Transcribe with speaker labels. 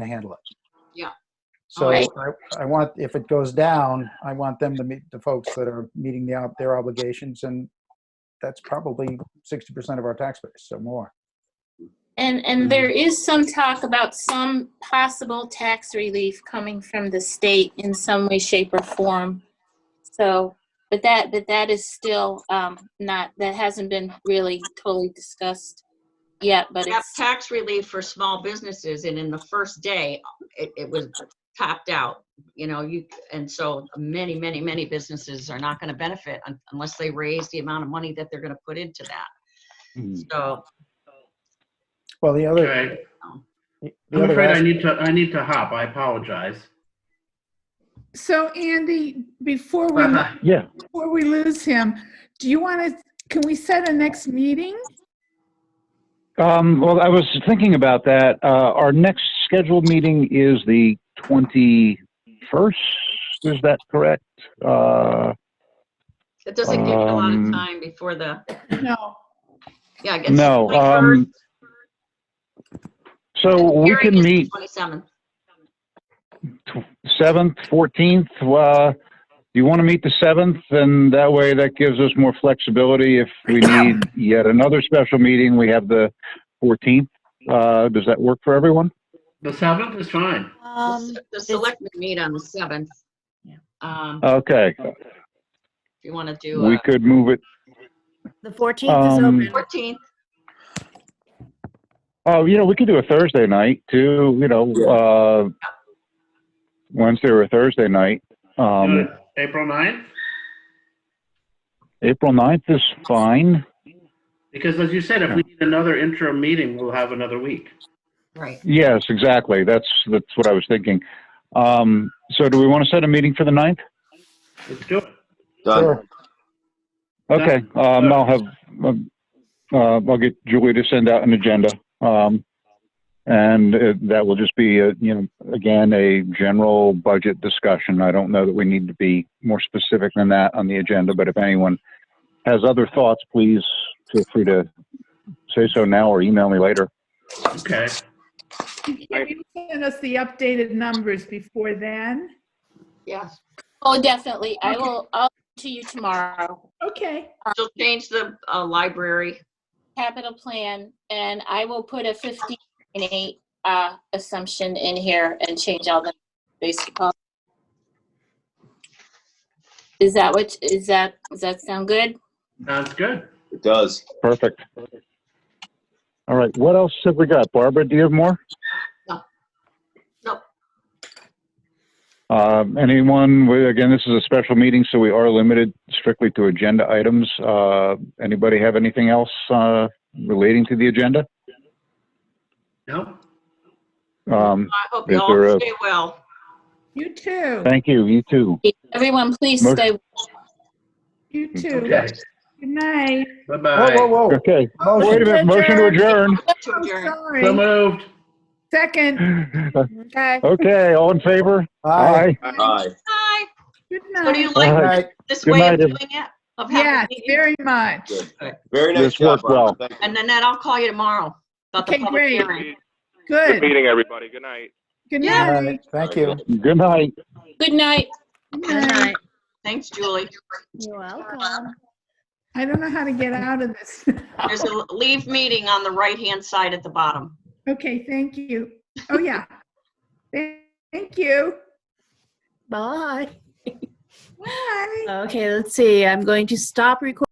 Speaker 1: to handle it.
Speaker 2: Yeah.
Speaker 1: So I,
Speaker 2: Alright.
Speaker 1: I want, if it goes down, I want them to meet the folks that are meeting the, ob- their obligations and that's probably sixty percent of our tax base, so more.
Speaker 3: And, and there is some talk about some possible tax relief coming from the state in some way, shape, or form. So, but that, but that is still um, not, that hasn't been really totally discussed yet, but
Speaker 2: That's
Speaker 3: it's,
Speaker 2: tax relief for small businesses, and in the first day, it, it was topped out. You know, you, and so many, many, many businesses are not gonna benefit un- unless they raise the amount of money that they're gonna put into that.
Speaker 4: Hmm.
Speaker 2: So,
Speaker 1: Well, the other,
Speaker 5: Okay,
Speaker 1: the
Speaker 5: I'm
Speaker 1: other
Speaker 5: afraid I
Speaker 1: aspect-
Speaker 5: need to, I need to hop, I apologize.
Speaker 6: So Andy, before we,
Speaker 5: But
Speaker 7: Yeah,
Speaker 6: before we lose him, do you want to, can we set a next meeting?
Speaker 7: um, well, I was thinking about that. Uh, our next scheduled meeting is the 21st. Is that correct? Uh,
Speaker 2: it doesn't give you a lot of
Speaker 7: Um,
Speaker 2: time before the,
Speaker 6: No.
Speaker 2: yeah, I guess.
Speaker 7: no, um, so we can meet
Speaker 2: Twenty-seven.
Speaker 7: 7th, 14th. Uh, do you want to meet the 7th? And that way that gives us more flexibility. If we need yet another special meeting, we have the 14th. Uh, does that work for everyone?
Speaker 5: The seventh is fine.
Speaker 4: Um,
Speaker 2: The selectmen meet on the seventh.
Speaker 4: Yeah.
Speaker 2: Um, if
Speaker 7: Okay,
Speaker 2: you wanna do,
Speaker 7: Uh,
Speaker 2: uh,
Speaker 7: we could move it.
Speaker 4: the fourteenth is
Speaker 7: Um,
Speaker 4: open.
Speaker 2: fourteenth,
Speaker 7: Oh, you know, we could do a Thursday night too. You know, uh, Wednesday or Thursday night.
Speaker 5: Do
Speaker 7: Um,
Speaker 5: it April ninth,
Speaker 7: April 9th is fine.
Speaker 5: because as you said, if we need another interim meeting, we'll have another week.
Speaker 2: right,
Speaker 7: Yes, exactly. That's that's what I was thinking. Um, so, do we want to set a meeting for the 9th?
Speaker 5: Let's do it.
Speaker 1: Sure.
Speaker 8: Done.
Speaker 7: Okay. Um, I'll have um, uh, I'll get Julie to send out an agenda, um, and uh that will just be a, you know again a general budget discussion. I don't know that we need to be more specific than that on the agenda, but if anyone has other thoughts, please feel free to say so now or email me later.
Speaker 5: Okay,
Speaker 6: Can you send us the updated numbers before then?
Speaker 2: yes.
Speaker 3: oh, definitely. I will, I'll to you tomorrow.
Speaker 6: Okay.
Speaker 2: She'll change the uh, library.
Speaker 3: Capital plan, and I will put a 15.8 uh, assumption in here and change all the basic. policy. Is that what, is that, does that sound good?
Speaker 5: sounds good.
Speaker 8: It does.
Speaker 7: Perfect. All right. What else have we got, Barbara? Do you have more?
Speaker 2: No. No.
Speaker 7: Um, anyone? we- Again, this is a special meeting, so we are limited strictly to agenda items. Uh, anybody have anything else uh, relating to the agenda?
Speaker 5: No?
Speaker 7: Um,
Speaker 2: I hope
Speaker 7: Is
Speaker 2: you
Speaker 7: there
Speaker 2: all
Speaker 7: a-
Speaker 2: stay well.
Speaker 6: You too.
Speaker 7: thank you. You too.
Speaker 3: Everyone, please
Speaker 7: Motion-
Speaker 3: stay.
Speaker 6: You too.
Speaker 5: Okay,
Speaker 6: Good night.
Speaker 1: Whoa, whoa,
Speaker 5: bye-bye.
Speaker 1: whoa.
Speaker 7: Okay.
Speaker 6: Oh,
Speaker 7: Wait a minute. Motion to adjourn.
Speaker 2: To
Speaker 6: I'm
Speaker 2: adjourn.
Speaker 5: So
Speaker 6: sorry.
Speaker 5: moved.
Speaker 6: Second.
Speaker 4: Okay.
Speaker 7: okay. All in favor?
Speaker 1: Aye.
Speaker 8: Aye.
Speaker 2: Hi.
Speaker 6: Good
Speaker 2: So do you
Speaker 6: night.
Speaker 7: Aye.
Speaker 2: like
Speaker 1: All right.
Speaker 2: this
Speaker 7: Good
Speaker 2: way of
Speaker 7: night,
Speaker 2: doing it? Of
Speaker 6: Yes,
Speaker 2: having meetings?
Speaker 6: very much.
Speaker 8: Good. Very nice
Speaker 7: This
Speaker 8: job,
Speaker 7: worked well.
Speaker 8: Barbara. Thank you.
Speaker 2: And then I'll call you tomorrow about the
Speaker 6: Okay,
Speaker 2: public
Speaker 6: great.
Speaker 2: hearing.
Speaker 6: Good.
Speaker 9: meeting, everybody. Good night.
Speaker 6: Good
Speaker 2: Yeah.
Speaker 1: All
Speaker 6: night.
Speaker 1: right. Thank you.
Speaker 7: Good night.
Speaker 3: Good night.
Speaker 6: Good
Speaker 4: Good
Speaker 6: night.
Speaker 4: night.
Speaker 2: Thanks, Julie.
Speaker 4: You're welcome.
Speaker 6: I don't know how to get out of this.
Speaker 2: There's a leave meeting on the right-hand side at the bottom.
Speaker 6: Okay, thank you. Oh, yeah. Thank you.
Speaker 4: Bye.
Speaker 6: Bye.
Speaker 4: Okay, let's see. I'm going to stop recording.